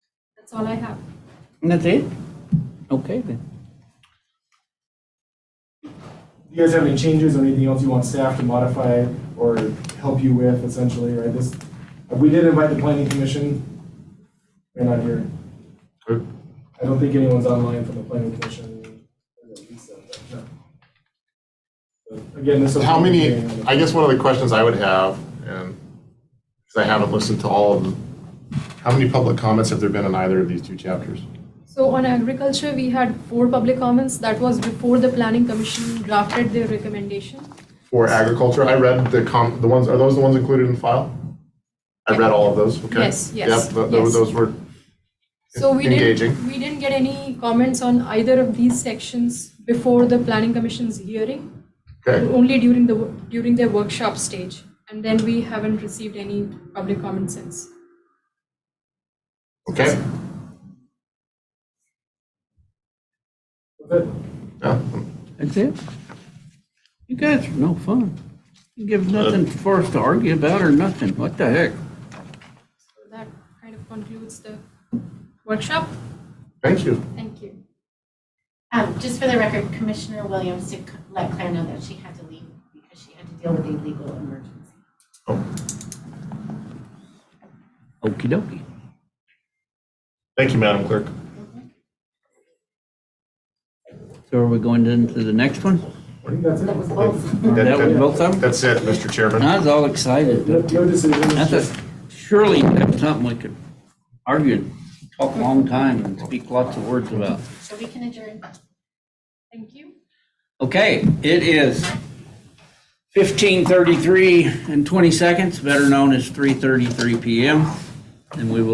That's all I have. That's it? Okay, then. You guys have any changes or anything else you want staff to modify or help you with essentially, right? This, we did invite the planning commission. They're not here. Okay. I don't think anyone's online from the planning commission. Again, this. will- How many, I guess one of the questions I would have, and, because I haven't listened to all of them, how many public comments have there been on either of these two chapters? So on agriculture, we had four public comments. That was before the planning commission drafted their recommendation. For agriculture, I read the com, the ones, are those the ones included in the file? I read all of those, okay. Yes, yes, Yep, tho- tho- yes. those were, So we Engaging. didn't, we didn't get any comments on either of these sections before the planning commission's hearing, okay, only during the, wo- during their workshop stage. And then we haven't received any public comment since. okay. Okay. Yeah. That's it? You guys are no fun. You give nothing for us to argue about or nothing. What the heck? So that kind of concludes the workshop. Thank you. Thank you. Um, just for the record, Commissioner Williams did c- let Claire know that she had to leave because she had to deal with a legal emergency. Okey dokey. Thank you, Madam Clerk. So are we going into the next one? I think that's it. That was both. That was both of them? That's it, Mr. Chairman. I was all excited. No no decisions, I just- thought surely you have something we could argue, and talk a long time and speak lots of words about. So we can adjourn. Thank you. Okay, it is 15:33 and 20 seconds, better known as 3:33 PM. And we will